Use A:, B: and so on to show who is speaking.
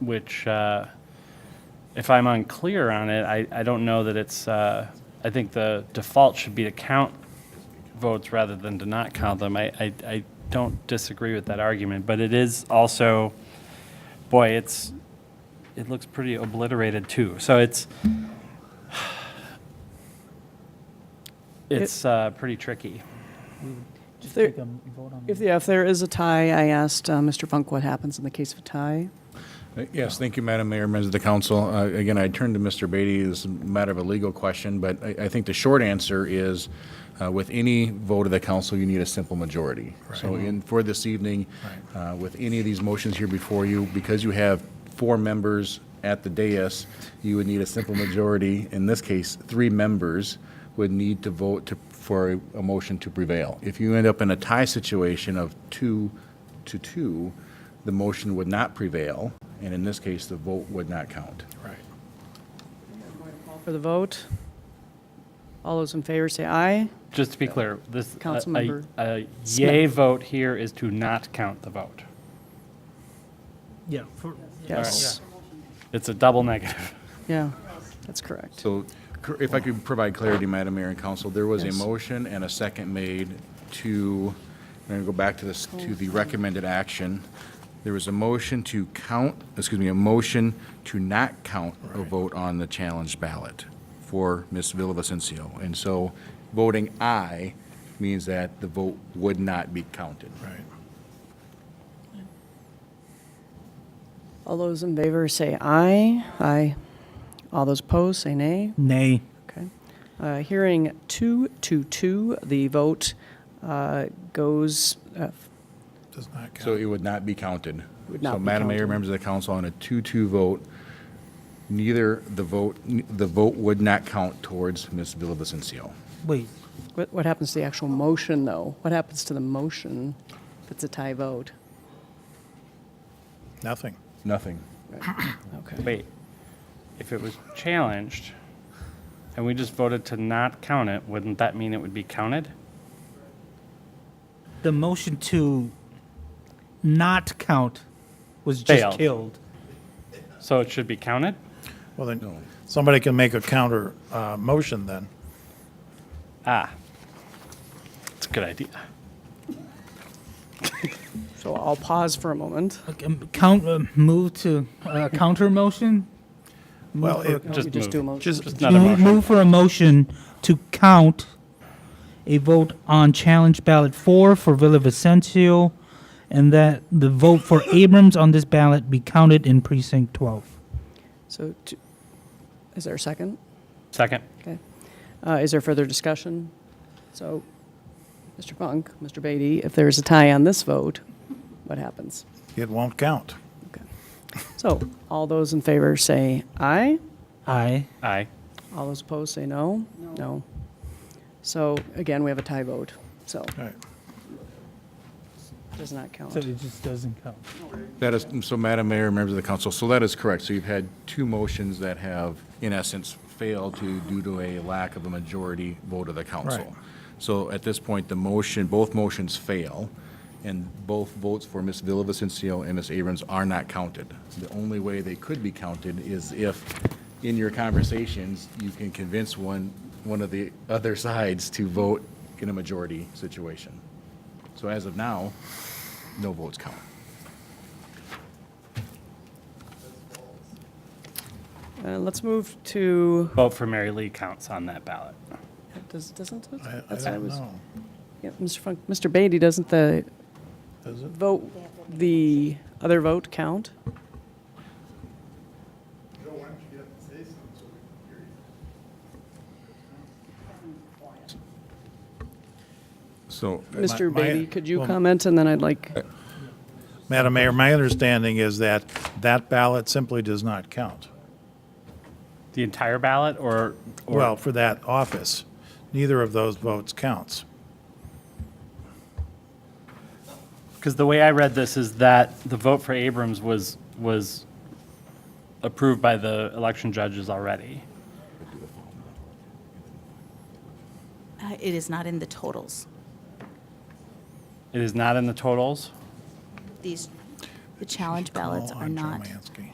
A: which, uh, if I'm unclear on it, I, I don't know that it's, uh, I think the default should be to count votes rather than to not count them. I, I, I don't disagree with that argument, but it is also, boy, it's, it looks pretty obliterated too. So it's, it's uh, pretty tricky.
B: Just
C: There-
B: take a vote on
C: If, yeah, if there is a tie, I asked uh, Mr. Funk what happens in the case of a tie.
D: Uh, Yes, thank you, Madam Mayor, members of the council. Uh, Again, I turn to Mr. Beatty as a matter of a legal question, but I I think the short answer is, uh, with any vote of the council, you need a simple majority. So in, for this evening, uh, with any of these motions here before you, because you have four members at the dais, you would need a simple majority. In this case, three members would need to vote to- for a- a motion to prevail. If you end up in a tie situation of two to two, the motion would not prevail, and in this case, the vote would not count. Right.
C: Call For the vote. All those in favor say aye.
A: Just to be clear, this, a- a,
C: Councilmember
A: a yay
C: Smith.
A: vote here is to not count the vote.
B: Yeah, for,
C: Yes.
A: It's a double negative.
C: Yeah, that's correct.
D: So cor- if I could provide clarity, Madam Mayor and Council, there was a
C: Yes.
D: motion and a second made to, I'm going to go back to this, to the recommended action. There was a motion to count, excuse me, a motion to not count a vote on the challenge ballot for Ms. Villavicencio. And so voting aye means that the vote would not be counted. Right.
C: All those in favor say aye. Aye. All those opposed say nay.
B: nay.
C: Okay. Uh, Hearing two to two, the vote uh, goes, uh,
E: Does not count.
D: So it would not be counted.
C: Would not
D: So
C: be
D: Madam Mayor,
C: counted.
D: members of the council, on a two-two vote, neither the vote, the vote would not count towards Ms. Villavicencio.
B: Wait,
C: what what happens to the actual motion, though? What happens to the motion if it's a tie vote?
E: Nothing.
D: Nothing.
C: Okay.
A: Wait, if it was challenged and we just voted to not count it, wouldn't that mean it would be counted?
B: the motion to not count was
A: Failed.
B: just killed.
A: So it should be counted?
E: Well, then, somebody can make a counter uh, motion then.
A: Ah, it's a good idea.
C: So I'll pause for a moment.
B: Okay, um, Count, uh, move to uh, counter motion?
E: Well, it-
C: No,
A: Just
C: we just do a
A: move.
C: motion.
A: Just another
B: Move
A: motion.
B: move for a motion to count a vote on challenge ballot four for Villa Vicencio, and that the vote for Abrams on this ballot be counted in precinct 12.
C: So, t- is there a second?
A: Second,
C: Okay. Uh, Is there further discussion? So, Mr. Funk, Mr. Beatty, if there's a tie on this vote, what happens?
E: it won't count.
C: So, all those in favor say aye.
B: Aye.
A: aye.
C: All those opposed say no. No. So, again, we have a tie vote, so
E: All right.
C: does not
B: So
C: count.
B: it just doesn't count.
D: That is, so Madam Mayor, members of the council, so that is correct. So you've had two motions that have, in essence, failed to, due to a lack of a majority vote of the council.
E: Right.
D: So at this point, the motion, both motions fail, and both votes for Ms. Villavicencio and Ms. Abrams are not counted. The only way they could be counted is if, in your conversations, you can convince one, one of the other sides to vote in a majority situation. So as of now, no votes count.
C: Uh, Let's move to,
A: Vote for Mary Lee counts on that ballot.
C: does- doesn't it?
E: I- I
C: That's-
E: don't
C: was-
E: know.
C: yeah, Mr. Funk, Mr. Beatty, doesn't the
E: Does it?
C: vote, the other vote count?
D: So
C: Mr.
E: my-
C: Beatty, could you
E: well-
C: comment, and then I'd like,
E: Madam Mayor, my understanding is that that ballot simply does not count.
A: The entire ballot or? or-
E: Well, for that office, neither of those votes counts.
A: Because the way I read this is that the vote for Abrams was, was approved by the election judges already.
F: Uh, It is not in the totals.
A: It is not in the totals?
F: These, the challenge ballots
E: Call
F: are
E: on
F: not.
E: Jermansky.